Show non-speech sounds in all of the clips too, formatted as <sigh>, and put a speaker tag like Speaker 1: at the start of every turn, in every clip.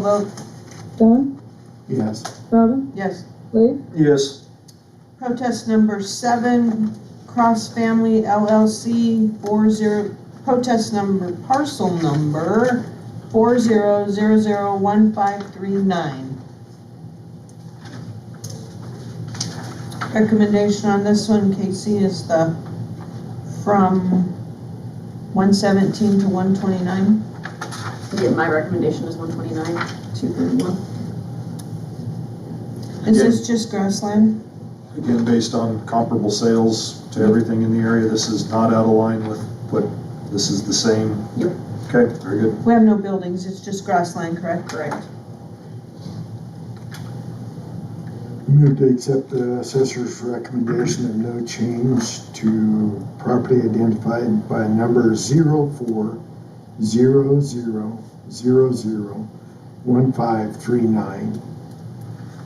Speaker 1: vote
Speaker 2: Don,
Speaker 3: Yes.
Speaker 2: Robin,
Speaker 1: yes.
Speaker 2: Lee,
Speaker 3: Yes.
Speaker 1: Protest number seven, Cross Family LLC, four zero, protest number, parcel number, four zero zero zero one five three nine. Recommendation on this one, Casey, is the, from one seventeen to one twenty-nine.
Speaker 4: Yeah, my recommendation is one twenty-nine, two thirty-one.
Speaker 1: Is this just grassland?
Speaker 3: Again, based on comparable sales to everything in the area, this is not out of line with, but this is the same.
Speaker 4: Yep.
Speaker 3: Okay, very good.
Speaker 1: We have no buildings, it's just grassland, correct?
Speaker 4: Correct.
Speaker 5: Move to accept the assessor's recommendation of no change to property identified by number zero four zero zero zero zero one five three nine,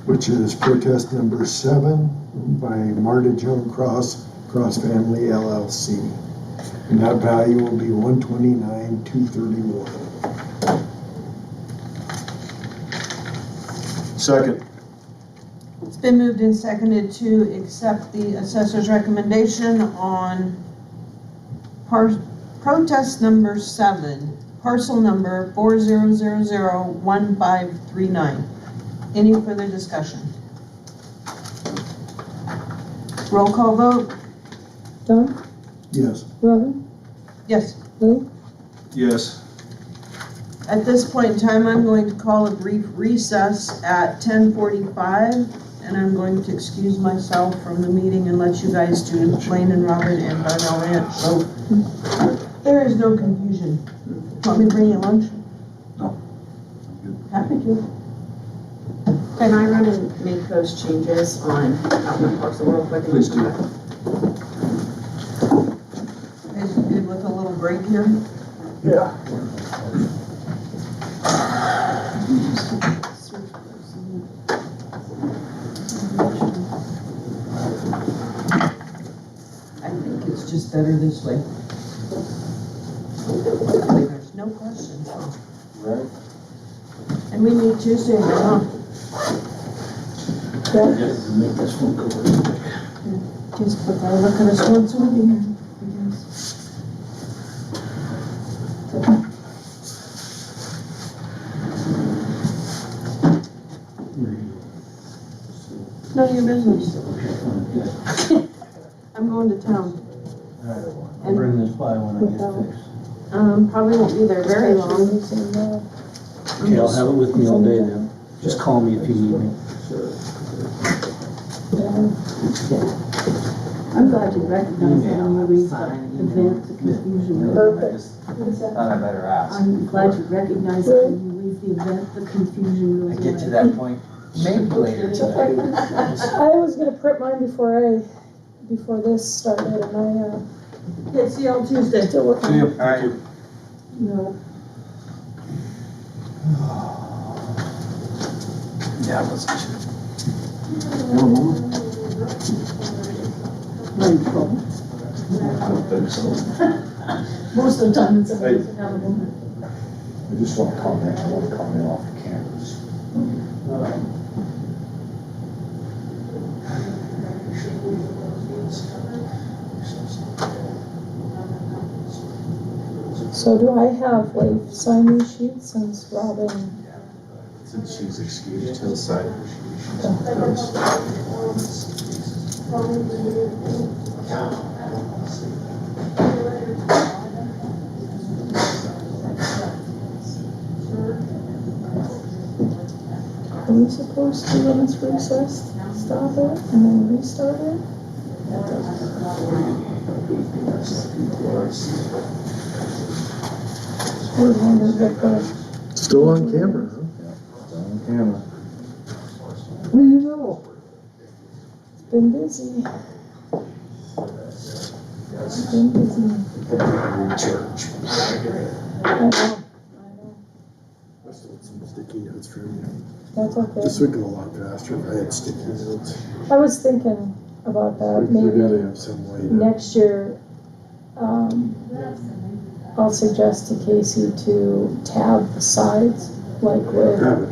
Speaker 5: which is protest number seven by Marta Joan Cross, Cross Family LLC. And that value will be one twenty-nine, two thirty-one.
Speaker 3: Second.
Speaker 1: It's been moved and seconded to accept the assessor's recommendation on par- protest number seven, parcel number four zero zero zero one five three nine. Any further discussion? Roll call vote,
Speaker 2: Don,
Speaker 5: Yes.
Speaker 2: Robin,
Speaker 1: yes.
Speaker 2: Lee,
Speaker 3: Yes.
Speaker 1: At this point in time, I'm going to call a brief recess at ten forty-five, and I'm going to excuse myself from the meeting and let you guys do Lane and Robin and Darnell Ranch, so there is no confusion. Want me to bring you lunch?
Speaker 3: No. good.
Speaker 1: Happy to.
Speaker 4: Can I run and make those changes on Outland Parcel real quick? and
Speaker 3: Please do.
Speaker 4: come back?
Speaker 1: Is it good with a little break here?
Speaker 5: Yeah.
Speaker 1: I think it's just better this way. That way There's no questions.
Speaker 3: Right.
Speaker 1: And we meet Tuesday, huh?
Speaker 3: Yes. Make this one go.
Speaker 1: Just put that look at us once over here, I guess. None of your business. I'm going to town.
Speaker 6: I'll bring this by when I get fixed.
Speaker 4: Um, probably won't be there very long.
Speaker 6: Okay, I'll have it with me all day then. Just call me if you need me.
Speaker 7: I'm glad you recognize that on the
Speaker 8: Sign,
Speaker 7: recent
Speaker 8: email.
Speaker 7: event, the confusion.
Speaker 2: Perfect.
Speaker 8: Thought I better ask.
Speaker 7: I'm glad you recognize that when you leave the event, the confusion
Speaker 8: I
Speaker 7: goes away.
Speaker 8: get to
Speaker 7: <laughs>
Speaker 8: that point, maybe later tonight.
Speaker 2: I was gonna print mine before I, before this started, and I, uh,
Speaker 1: Okay, see you on Tuesday.
Speaker 2: still working.
Speaker 3: See you.
Speaker 8: Alright.
Speaker 7: No,
Speaker 8: Yeah, I wasn't sure.
Speaker 7: mindful.
Speaker 3: I don't think so.
Speaker 7: <laughs> Most of the time it's.
Speaker 3: Hey.
Speaker 7: inevitable.
Speaker 3: I just want to comment, I want to comment off the cameras.
Speaker 2: So do I have like sign these sheets since Robin,
Speaker 3: Since she's excused to the side.
Speaker 2: are we supposed to when it's recessed, stop it and then restart it? Or wonder if the-
Speaker 5: Still on camera, huh?
Speaker 3: Camera.
Speaker 5: What do you know?
Speaker 2: it's been busy. It's been busy.
Speaker 3: Church.
Speaker 2: I know, I know,
Speaker 5: Some sticky notes for you.
Speaker 2: that's okay.
Speaker 5: This would go a lot faster if I had sticky notes.
Speaker 2: I was thinking about that,
Speaker 5: We- We
Speaker 2: maybe
Speaker 5: gotta have some way to.
Speaker 2: next year, um, I'll suggest to Casey to tab the sides like where.